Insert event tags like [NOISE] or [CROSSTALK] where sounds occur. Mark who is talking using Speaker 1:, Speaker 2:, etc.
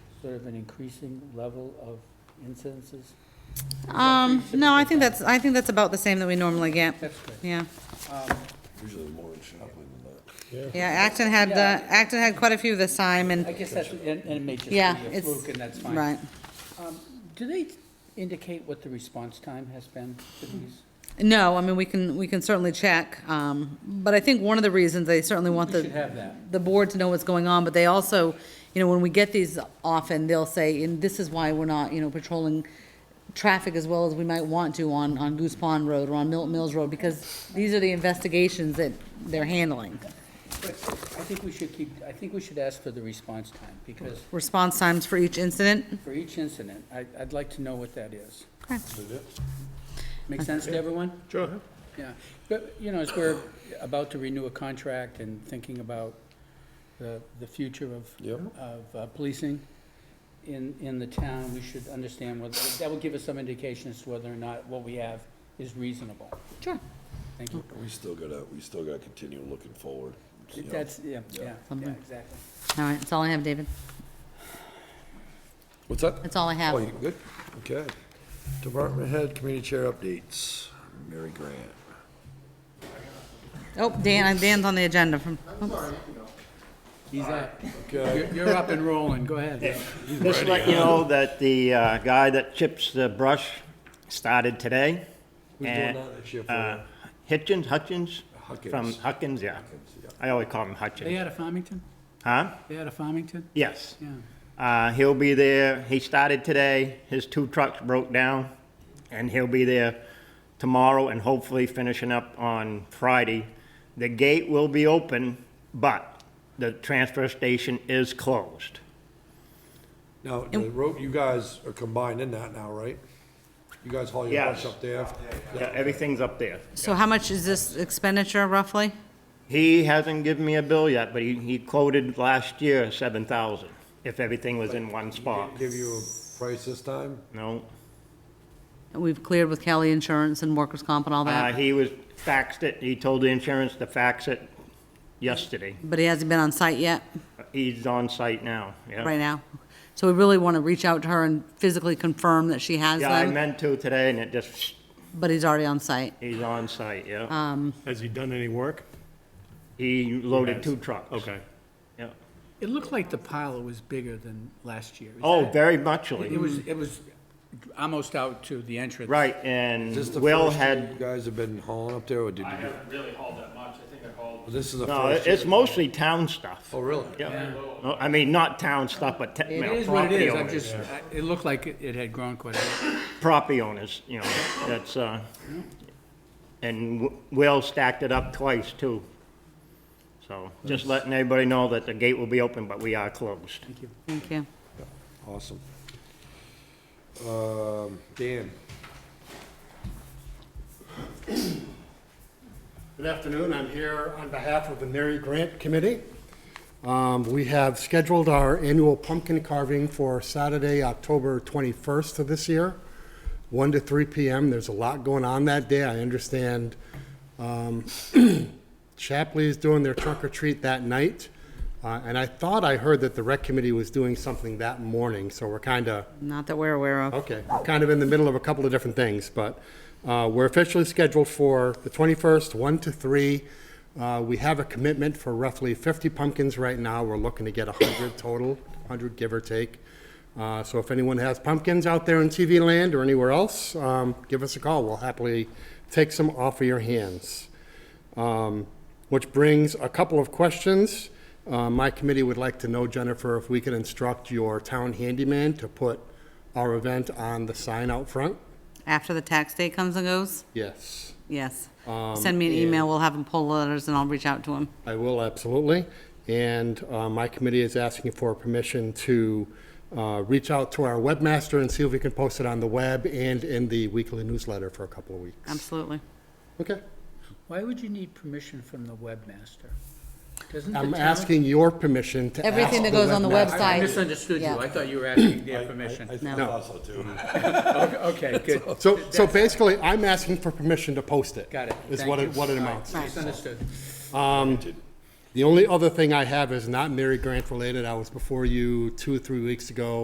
Speaker 1: sort of an increasing level of incidences?
Speaker 2: Um, no, I think that's, I think that's about the same that we normally get,
Speaker 1: That's good.
Speaker 2: yeah.
Speaker 1: Um,
Speaker 3: Usually more in Chaplin than that.
Speaker 2: Yeah, Acton had, uh,
Speaker 1: Yeah.
Speaker 2: Acton had quite a few this time,
Speaker 1: I
Speaker 2: and,
Speaker 1: guess that's, and and it may just be
Speaker 2: yeah,
Speaker 1: a
Speaker 2: it's,
Speaker 1: fluke, and that's fine.
Speaker 2: right.
Speaker 1: Do they indicate what the response time has been for these?
Speaker 2: No, I mean, we can, we can certainly check, um, but I think one of the reasons they certainly want
Speaker 1: We should
Speaker 2: the,
Speaker 1: have that.
Speaker 2: the board to know what's going on, but they also, you know, when we get these often, they'll say, and this is why we're not, you know, patrolling traffic as well as we might want to on, on Goose Pond Road or on Milton Mills Road, because these are the investigations that they're handling.
Speaker 1: But I think we should keep, I think we should ask for the response time, because
Speaker 2: Response times for each incident,
Speaker 1: for each incident, I, I'd like to know what that is.
Speaker 3: Is it?
Speaker 1: Make sense to everyone?
Speaker 3: Sure.
Speaker 1: Yeah, but, you know, as we're about to renew a contract and thinking about the, the future of,
Speaker 3: Yep.
Speaker 1: of uh, policing in, in the town, we should understand whether, that will give us some indication as to whether or not what we have is reasonable.
Speaker 2: Sure.
Speaker 1: Thank you.
Speaker 3: We still gotta, we still gotta continue looking forward. you know.
Speaker 1: That's, yeah, yeah, yeah,
Speaker 2: Something.
Speaker 1: exactly.
Speaker 2: all right, that's all I have, David,
Speaker 3: What's that?
Speaker 2: that's all I have.
Speaker 3: Oh, you good? Okay. Department head, committee chair updates. Mary Grant.
Speaker 2: Oh, Dan, Dan's on the agenda from,
Speaker 1: He's up.
Speaker 3: Okay.
Speaker 1: You're- You're up and rolling, go ahead.
Speaker 4: Just to let you know that the uh, guy that chips the brush started today.
Speaker 3: Who's doing
Speaker 4: And,
Speaker 3: that this year for
Speaker 4: uh, Hitchens, Hutchins?
Speaker 3: Huckins.
Speaker 4: From Huckins, yeah.
Speaker 3: yeah.
Speaker 4: I always call him
Speaker 1: They
Speaker 4: Hutchins.
Speaker 1: out of Farmington?
Speaker 4: Huh?
Speaker 1: They out of Farmington?
Speaker 4: Yes.
Speaker 1: Yeah.
Speaker 4: Uh, He'll be there. He started today. His two trucks broke down. And he'll be there tomorrow and hopefully finishing up on Friday. The gate will be open, but the transfer station is closed.
Speaker 3: Now, the road, you guys are combined in that now, right? You guys haul your
Speaker 4: Yes.
Speaker 3: brush up there?
Speaker 4: Yeah, Everything's up there.
Speaker 2: so how much is this expenditure roughly?
Speaker 4: He hasn't given me a bill yet, but he, he quoted last year seven thousand, if everything was in one spot.
Speaker 3: Give you a price this time?
Speaker 4: No,
Speaker 2: We've cleared with Kelly Insurance and workers' comp and all
Speaker 4: uh,
Speaker 2: that,
Speaker 4: he was faxed it, he told the insurance to fax it yesterday.
Speaker 2: but he hasn't been on site yet,
Speaker 4: He's on site now, yeah.
Speaker 2: right now. So we really want to reach out to her and physically confirm that she has
Speaker 4: Yeah, I
Speaker 2: them,
Speaker 4: meant to today and it just,
Speaker 2: but he's already on site.
Speaker 4: he's on site,
Speaker 1: Uh.
Speaker 4: yeah.
Speaker 5: Has he done any work?
Speaker 4: He loaded two trucks.
Speaker 5: Okay.
Speaker 4: Yeah.
Speaker 1: It looked like the pile was bigger than last year. Is
Speaker 4: Oh,
Speaker 1: that-
Speaker 4: very
Speaker 1: It
Speaker 4: muchly,
Speaker 1: was, it was almost out to the entrance.
Speaker 4: right, and Will
Speaker 3: You
Speaker 4: had,
Speaker 3: guys have been hauling up there, or did
Speaker 6: I
Speaker 3: you?
Speaker 6: haven't really hauled that much, I think I hauled
Speaker 3: This is the
Speaker 4: no,
Speaker 3: first?
Speaker 4: it's mostly town stuff.
Speaker 3: Oh, really?
Speaker 4: Yeah, No, I mean, not town stuff, but te- you
Speaker 1: It
Speaker 4: know,
Speaker 1: is what it
Speaker 4: property
Speaker 1: is, I'm
Speaker 4: owners.
Speaker 1: just, I- it looked like it it had grown quite a bit.
Speaker 4: property owners, you know, that's, uh, and W- Will stacked it up twice, too. So, just letting everybody know that the gate will be open, but we are closed.
Speaker 2: Thank you.
Speaker 3: Awesome. Um, Dan?
Speaker 7: Good afternoon. I'm here on behalf of the Mary Grant Committee. Um, We have scheduled our annual pumpkin carving for Saturday, October 21st of this year, 1 to 3 p.m. There's a lot going on that day. I understand um, [CLEARS THROAT] Chapley is doing their trunk or treat that night, Uh, and I thought I heard that the rec committee was doing something that morning, so we're kind of
Speaker 2: Not that we're aware
Speaker 3: Oh.
Speaker 2: of.
Speaker 7: Okay, kind of in the middle of a couple of different things, but uh, we're officially scheduled for the 21st, 1 to 3. Uh, We have a commitment for roughly 50 pumpkins right now. We're looking to get 100 total, 100 give or take. Uh, So if anyone has pumpkins out there in TV land or anywhere else, um, give us a call. We'll happily take some off of your hands which brings a couple of questions. Uh, My committee would like to know, Jennifer, if we can instruct your town handyman to put our event on the sign out front?
Speaker 2: After the tax day comes and goes,
Speaker 7: Yes,
Speaker 2: yes.
Speaker 3: Um,
Speaker 2: Send me an email, we'll have him pull letters and I'll reach out to him.
Speaker 7: I will, absolutely. And uh, my committee is asking for permission to uh, reach out to our webmaster and see if we can post it on the web and in the weekly newsletter for a couple of weeks.
Speaker 2: Absolutely.
Speaker 7: Okay.
Speaker 1: Why would you need permission from the webmaster? Doesn't the
Speaker 7: I'm
Speaker 1: town-
Speaker 7: asking your permission to ask
Speaker 2: Everything that goes on the
Speaker 7: webmaster-
Speaker 1: I
Speaker 2: website.
Speaker 1: misunderstood you,
Speaker 2: Yeah.
Speaker 1: I thought you were asking their permission.
Speaker 7: No.
Speaker 3: Also, too.
Speaker 1: [LAUGHS] Okay, good,
Speaker 7: [LAUGHS] So, so basically, I'm asking for permission to post it.
Speaker 1: Got it.
Speaker 7: Is
Speaker 1: Thank
Speaker 7: what
Speaker 1: you.
Speaker 7: it, what it amounts to.
Speaker 1: misunderstood.
Speaker 7: The only other thing I have is not Mary Grant related. I was before you two, three weeks ago